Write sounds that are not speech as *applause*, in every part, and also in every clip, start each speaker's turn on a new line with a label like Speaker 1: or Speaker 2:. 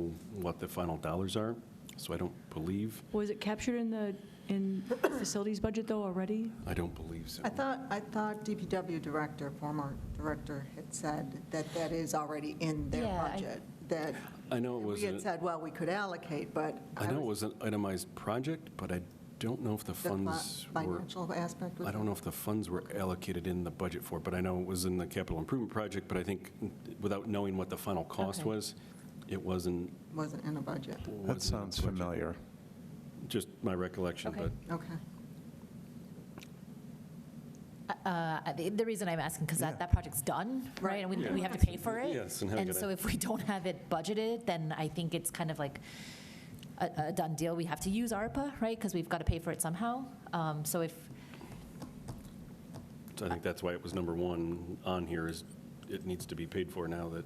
Speaker 1: know what the final dollars are, so I don't believe,
Speaker 2: Was it captured in the, in facilities budget, though, already?
Speaker 1: I don't believe so.
Speaker 3: I thought, I thought DPW director, former director, had said that that is already in their
Speaker 4: Yeah, I-
Speaker 3: budget, that.
Speaker 1: I know it
Speaker 3: We had
Speaker 1: wasn't,
Speaker 3: said, well, we could allocate, but.
Speaker 1: I know it was an itemized project, but I don't know if the
Speaker 3: The fi-
Speaker 1: funds were,
Speaker 3: Financial aspect was.
Speaker 1: I don't know if the funds were allocated in the budget for, it, but I know it was in the capital improvement project, but I think, without knowing what the final cost
Speaker 4: Okay.
Speaker 1: was, it wasn't.
Speaker 3: Wasn't in a budget.
Speaker 1: wasn't in the
Speaker 5: That sounds
Speaker 1: budget.
Speaker 5: familiar.
Speaker 1: Just my recollection,
Speaker 4: Okay.
Speaker 1: but
Speaker 3: Okay.
Speaker 4: Uh, The the reason I'm asking, because
Speaker 5: Yeah.
Speaker 4: that, that project's done,
Speaker 3: Right.
Speaker 4: right? And we,
Speaker 1: Yeah.
Speaker 4: we have to pay for it.
Speaker 1: Yes, and how
Speaker 4: And
Speaker 1: could I-
Speaker 4: so if we *laughs* don't have it budgeted, then I think it's kind of like a, a done deal. We have to use ARPA, right? Because we've got to pay for it somehow. Um, So if,
Speaker 1: I think that's why it was number one on here, is it needs to be paid for now that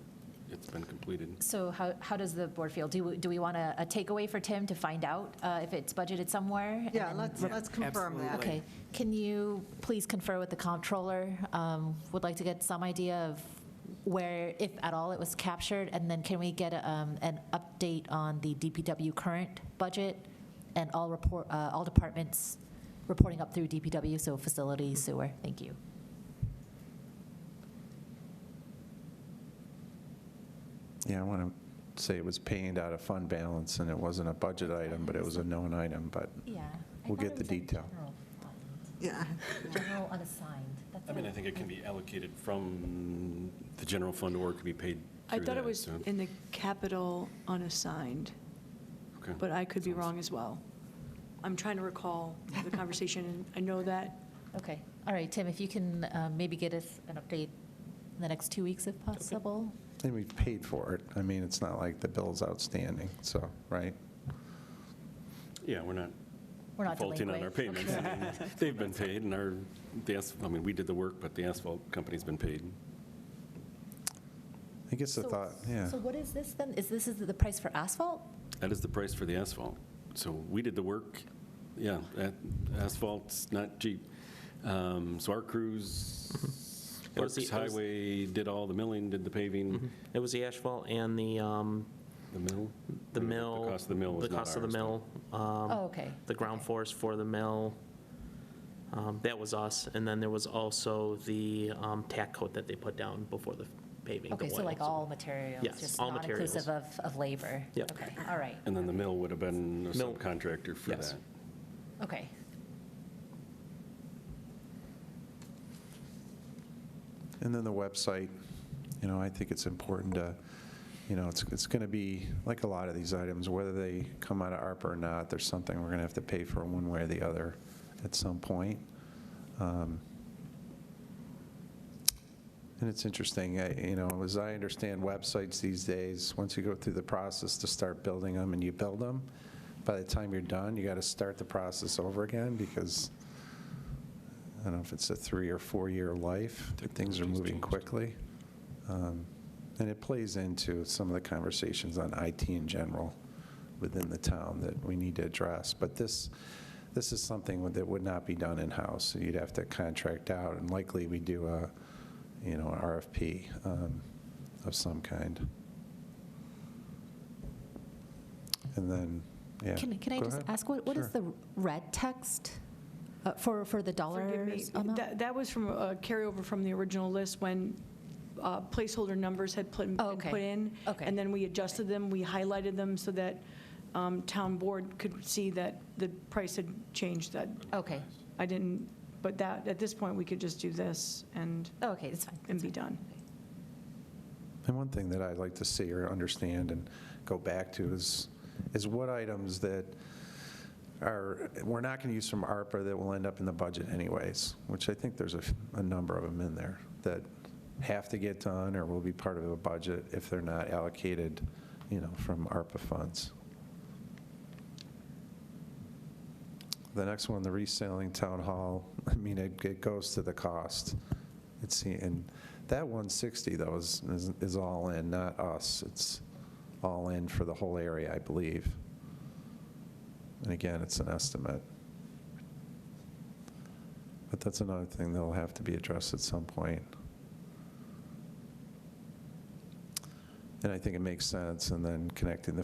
Speaker 1: it's been completed.
Speaker 4: so how, how does the board feel? Do, we- do we want a a takeaway for Tim to find out uh, if it's budgeted somewhere? And
Speaker 3: Yeah,
Speaker 4: then-
Speaker 3: let's, let's confirm that.
Speaker 4: Okay, can you please confer with the comptroller? Um, Would like to get some idea of where, if at all, it was captured, and then can we get um, an update on the DPW current budget and all report, uh, all departments reporting up through DPW, so facilities, sewer, thank you.
Speaker 5: Yeah, I want to say it was paying out of fund balance, and it wasn't a budget item, but it was a known item, but
Speaker 4: Yeah.
Speaker 5: We'll get the detail.
Speaker 3: Yeah. *laughs*
Speaker 4: General unassigned.
Speaker 1: I mean, I think it can be allocated from the general fund, or it could be paid
Speaker 2: I
Speaker 1: through
Speaker 2: thought it
Speaker 1: that,
Speaker 2: was
Speaker 1: so-
Speaker 2: in the capital unassigned,
Speaker 1: okay.
Speaker 2: but I could be wrong as well. I'm trying to recall the conversation, and I know that,
Speaker 4: Okay, all right, Tim, if you can uh, maybe get us an update in the next two weeks if possible?
Speaker 5: and we paid for it. I mean, it's not like the bill's outstanding, so, right?
Speaker 1: Yeah, we're not
Speaker 4: We're not
Speaker 1: faulting on our
Speaker 4: delinquent.
Speaker 1: payments. I
Speaker 5: *laughs*
Speaker 1: mean, *laughs* They've been paid, and our, the as, I mean, we did the work, but the asphalt company's been paid.
Speaker 5: I guess the thought, yeah.
Speaker 4: So what is this then? Is this is the price for asphalt?
Speaker 1: That is the price for the asphalt. So we did the work, yeah, that asphalt's not cheap. Um, So our
Speaker 6: Mm-hmm.
Speaker 1: crews,
Speaker 6: It
Speaker 1: Parks
Speaker 6: was the- it was-
Speaker 1: Highway did all the milling, did the paving,
Speaker 6: It was the asphalt and the, um,
Speaker 1: the mill.
Speaker 6: the mill.
Speaker 1: The cost of the mill was
Speaker 6: The
Speaker 1: not
Speaker 6: cost of the
Speaker 1: ours, but-
Speaker 6: mill. um,
Speaker 4: Oh, okay.
Speaker 6: The ground
Speaker 4: Okay.
Speaker 6: force for the mill. um, That was us. And then there was also the um, tack coat that they put down before the paving. the
Speaker 4: Okay, so
Speaker 6: oil,
Speaker 4: like all materials?
Speaker 6: Yes, all materials.
Speaker 4: Just not inclusive of, of labor?
Speaker 6: Yep.
Speaker 4: Okay, all right,
Speaker 1: And then the mill would have been a
Speaker 6: Mill.
Speaker 1: subcontractor for
Speaker 6: Yes.
Speaker 1: that.
Speaker 4: okay.
Speaker 5: And then the website, you know, I think it's important to, you know, it's, it's going to be, like a lot of these items, whether they come out of ARPA or not, there's something we're going to have to pay for one way or the other at some point. Um, And it's interesting, I- you know, as I understand websites these days, once you go through the process to start building them and you build them, by the time you're done, you got to start the process over again because I don't know if it's a three or four-year life, but things are
Speaker 1: Technology's
Speaker 5: moving
Speaker 1: changed.
Speaker 5: quickly. Um, And it plays into some of the conversations on IT in general within the town that we need to address. But this, this is something that would not be done in-house. So You'd have to contract out, and likely we do a, you know, an RFP um, of some kind. And then, yeah.
Speaker 4: Can, can I
Speaker 5: Go
Speaker 4: just
Speaker 5: ahead.
Speaker 4: ask, what, what is
Speaker 5: Sure.
Speaker 4: the red text uh, for, for the
Speaker 2: forgive
Speaker 4: dollar
Speaker 2: me,
Speaker 4: amount?
Speaker 2: that, that was from a carryover from the original list when uh, placeholder numbers had put,
Speaker 4: Oh,
Speaker 2: been
Speaker 4: okay.
Speaker 2: put in.
Speaker 4: Okay.
Speaker 2: And then we adjusted them, we highlighted them so that um, town board could see that the price had changed, that
Speaker 4: Okay,
Speaker 2: I didn't, but that, at this point, we could just do this and,
Speaker 4: Oh, okay, that's fine.
Speaker 2: and
Speaker 4: that's
Speaker 2: be
Speaker 4: fine.
Speaker 2: done.
Speaker 5: And one thing that I'd like to see or understand and go back to is, is what items that are, we're not going to use from ARPA that will end up in the budget anyways, which I think there's a, f- a number of them in there that have to get done or will be part of a budget if they're not allocated, you know, from ARPA funds. The next one, the reselling town hall, *laughs* I mean, it, it goes to the cost. It's, the- and that 160 though is, is- is all in, not us. It's all in for the whole area, I believe. And again, it's an estimate. But that's another thing that'll have to be addressed at some point. And I think it makes sense, and then connecting the